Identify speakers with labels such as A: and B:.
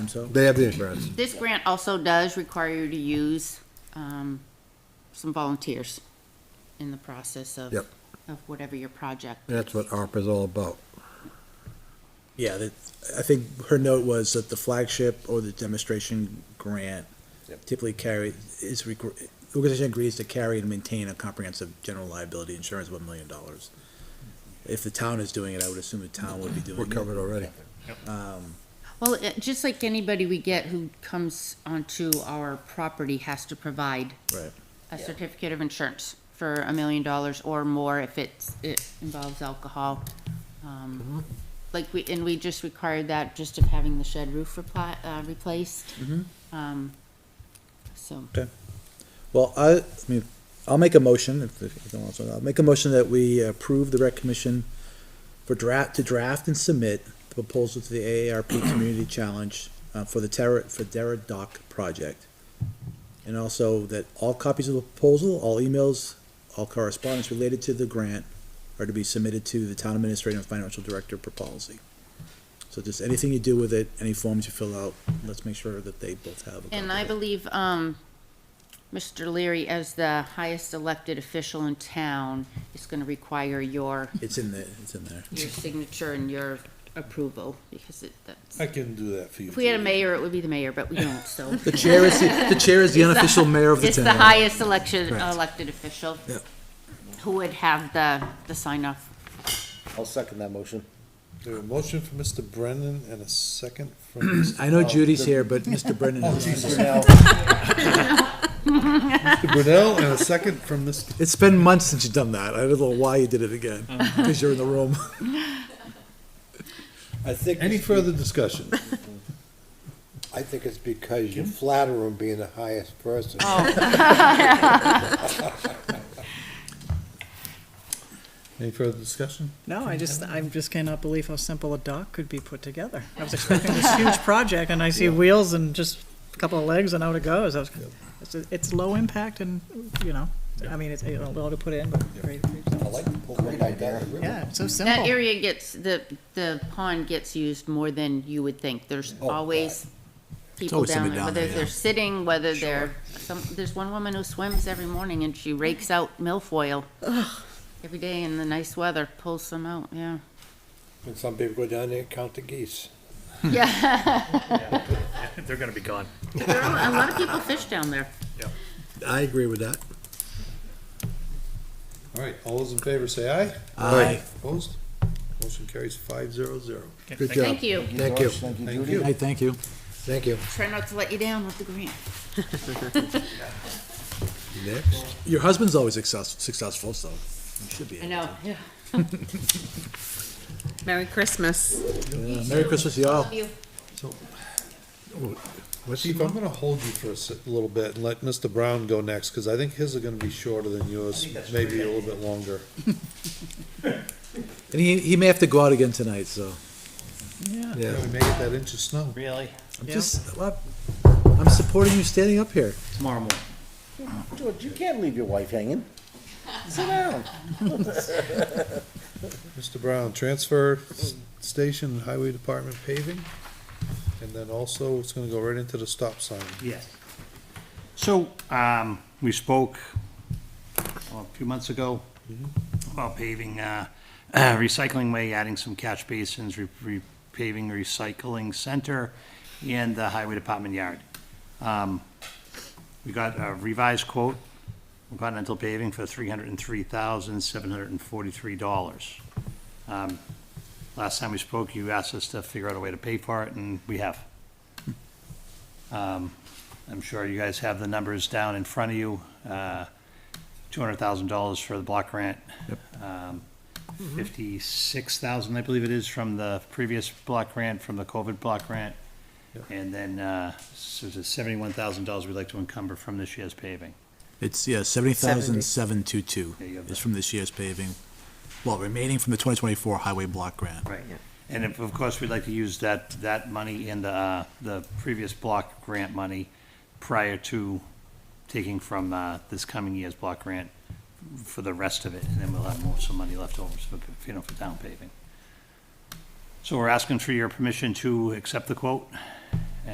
A: so?
B: They have the insurance.
C: This grant also does require you to use um, some volunteers in the process of,
B: Yep.
C: of whatever your project.
B: That's what ARPA is all about.
A: Yeah, that, I think her note was that the flagship or the demonstration grant typically carry, is, requ- the organization agrees to carry and maintain a comprehensive general liability insurance of one million dollars. If the town is doing it, I would assume the town would be doing it.
B: We're covered already.
C: Well, it- just like anybody we get who comes onto our property has to provide
A: Right.
C: a certificate of insurance for a million dollars or more if it's, it involves alcohol. Um, Like we, and we just required that just of having the shed roof repli- uh, replaced. Um, So.
A: Well, I, I mean, I'll make a motion, if, if you don't want to, I'll make a motion that we approve the rec commission for draft, to draft and submit the proposal to the AARP Community Challenge, uh, for the Terra, for Dara Dock project. And also that all copies of the proposal, all emails, all correspondence related to the grant are to be submitted to the town administrator and financial director per policy. So just anything you do with it, any forms you fill out, let's make sure that they both have. a copy
C: And
A: of
C: I
A: it.
C: believe, um, Mr. Leary, as the highest elected official in town, is gonna require your,
A: It's in there, it's in there.
C: your signature and your approval, because it, that's,
D: I can do that for you.
C: if we had a mayor, it would be the mayor, but we don't, so.
B: The chair is, the the chair is the unofficial mayor of the
C: It's the
B: town.
C: highest election,
B: Correct.
C: elected official.
B: Yep.
C: Who would have the, the sign off.
E: I'll second that motion.
D: There a motion for Mr. Brennan and a second from Mr.
B: I know
D: Oh,
B: Judy's
D: the-
B: here, but Mr. Brennan
D: Oh,
B: is.
D: Jesus.
E: Now,
D: Mr. Brunel and a second from Mr.
B: It's been months since you've done that. I don't know why you did it again, because you're in the room.
E: I think,
D: Any further discussion?
F: I think it's because you flatter him being the highest person.
D: Any further discussion?
G: No, I just, I just cannot believe how simple a dock could be put together. I was expecting this huge project, and I see wheels and just a couple of legs and out it goes. I was, it's, it's low impact and, you know, I mean, it's, a lot to put in, but great, great.
F: I like to pull right down the river.
G: Yeah, it's so
B: Oh.
C: That
G: simple.
C: area gets, the, the pond gets used more than you would think. There's always people
B: Oh, always
C: down
B: somebody
C: there,
B: down
C: whether
B: there,
C: they're sitting, whether they're, some, there's one woman who swims every morning and she rakes out milfoil every day in the nice weather, pulls them out, yeah.
F: And some people go down there and count the geese.
B: Hmm.
C: Yeah,
H: They're gonna be gone.
C: there are a lot of people fish down there.
B: I agree with that.
D: All right, all those in favor say aye.
B: Aye.
D: Opposed? Motion carries five zero zero.
B: Good job.
C: Thank you.
B: Thank you.
E: Thank you,
D: Thank
E: Judy.
D: you.
B: Hey, thank you.
F: Thank you.
C: Try not to let you down with the grant.
B: Next. Your husband's always success- successful, so you should be.
C: I know, yeah.
I: Merry Christmas.
B: Yeah, Merry Christmas to you all.
C: Love you.
D: Chief, I'm gonna hold you for a s- little bit and let Mr. Brown go next, because I think his are gonna be shorter than yours, maybe a little bit longer.
B: And he, he may have to go out again tonight, so.
G: Yeah.
B: Yeah.
D: We may get that inch of snow.
E: Really?
B: I'm
G: Yeah.
B: just, well, I'm supporting you standing up here.
H: Tomorrow morning.
E: George, you can't leave your wife hanging. Sit down.
D: Mr. Brown, transfer s- station, highway department paving, and then also it's gonna go right into the stop sign.
H: Yes. So, um, we spoke well, a few months ago
B: Mm-hmm.
H: about paving, uh, recycling way, adding some catch basins, re- re- paving recycling center and the highway department yard. Um, we got a revised quote, from Continental Paving for three hundred and three thousand, seven hundred and forty-three dollars. Um, last time we spoke, you asked us to figure out a way to pay for it and we have. Um, I'm sure you guys have the numbers down in front of you. Uh, $200,000 for the block grant. Um, 56,000, I believe it is, from the previous block grant, from the COVID block grant. And then, uh, so it's $71,000 we'd like to encumber from this year's paving.
B: It's, yeah, seventy thousand seven two two
H: Yeah, you have
B: is
H: that.
B: from this year's paving, well, remaining from the twenty twenty-four highway block grant.
H: Right. And if- of course, we'd like to use that, that money and the, uh, the previous block grant money prior to taking from uh, this coming year's block grant for the rest of it, and then we'll have more, some money left over, for, you know, for down paving. So we're asking for your permission to accept the quote